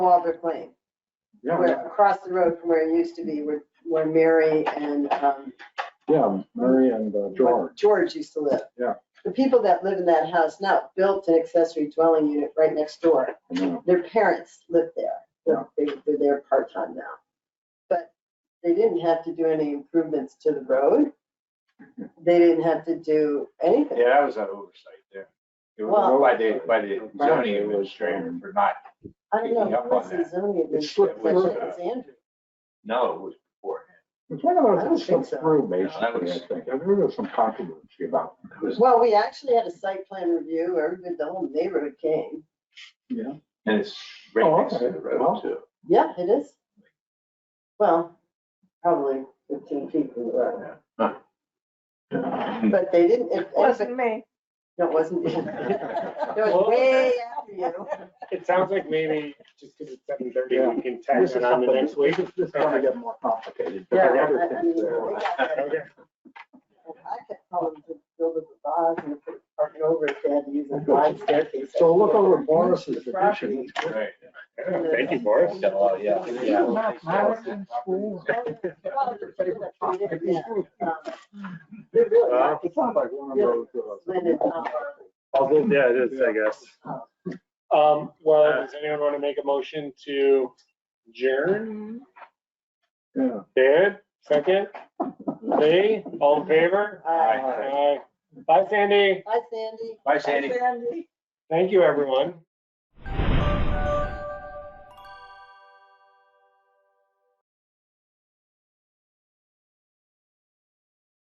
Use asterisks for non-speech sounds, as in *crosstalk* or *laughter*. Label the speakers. Speaker 1: Walbrook Lane,
Speaker 2: Yeah,
Speaker 1: where, across the road from where it used to be, where, where Mary and, um,
Speaker 2: yeah, Murray and uh, George.
Speaker 1: George used to live.
Speaker 2: Yeah.
Speaker 1: The people that live in that house now built an accessory dwelling unit right next door.
Speaker 2: I know.
Speaker 1: Their parents lived there. They're, they're there part-time now. But they didn't have to do any improvements to the road. They didn't have to do anything.
Speaker 3: Yeah, that was an oversight there. It
Speaker 1: Well-
Speaker 3: was by the, by the zoning administrator for not,
Speaker 1: I don't know,
Speaker 3: Picking up
Speaker 1: who was
Speaker 3: on
Speaker 1: the
Speaker 3: that.
Speaker 1: zoning
Speaker 2: It slipped
Speaker 1: administrator? I
Speaker 3: through.
Speaker 1: think it was Andrew.
Speaker 3: no, it was beforehand.
Speaker 2: It's one of
Speaker 1: I
Speaker 2: those
Speaker 1: don't
Speaker 2: that
Speaker 1: think
Speaker 2: slipped
Speaker 1: so.
Speaker 2: through,
Speaker 3: No, that
Speaker 2: basically, I
Speaker 3: was-
Speaker 2: think. I think There was some controversy about. it.
Speaker 3: It was-
Speaker 1: Well, we actually had a site plan review, everybody, the whole neighborhood came.
Speaker 2: Yeah.
Speaker 3: And it's right
Speaker 2: Oh,
Speaker 3: next to
Speaker 2: okay.
Speaker 3: the
Speaker 2: Well. *laughs*
Speaker 3: road too.
Speaker 1: Yeah, it is. Well, probably fifteen feet from the road, but they didn't, it, it
Speaker 4: Wasn't me.
Speaker 1: wasn't, *laughs* it was way after you.
Speaker 5: It sounds like maybe just because it's seven thirty,
Speaker 2: Yeah.
Speaker 5: we can
Speaker 2: This
Speaker 5: tack
Speaker 2: is
Speaker 5: it on the
Speaker 2: something-
Speaker 5: next week.
Speaker 2: This is going to get more complicated.
Speaker 1: Yeah,
Speaker 2: There are other
Speaker 1: I- I mean,
Speaker 2: things
Speaker 1: they
Speaker 2: there.
Speaker 1: got that.
Speaker 5: Okay.
Speaker 1: *laughs* I could tell them to build a garage and put parking over if they had to use a wide staircase.
Speaker 2: uh, So look over Boris's
Speaker 1: Property.
Speaker 2: addition.
Speaker 3: Right.
Speaker 5: Yeah, Thank you, Boris.
Speaker 3: Got a lot, yeah.
Speaker 1: Well, it's sort of like they did, yeah, um, They're really
Speaker 5: Wow.
Speaker 1: like
Speaker 2: It sounds like one of those. uh,
Speaker 1: slanted tower.
Speaker 5: Although, yeah, it is, I guess. Um, well, does anyone want to make a motion to adjourn?
Speaker 2: Yeah.
Speaker 5: David,
Speaker 2: *laughs*
Speaker 5: second? Lee, all in favor?
Speaker 1: Uh,
Speaker 3: Aye.
Speaker 5: Aye. Bye, Sandy.
Speaker 1: Hi, Sandy.
Speaker 3: Bye, Sandy.
Speaker 5: Thank you, everyone.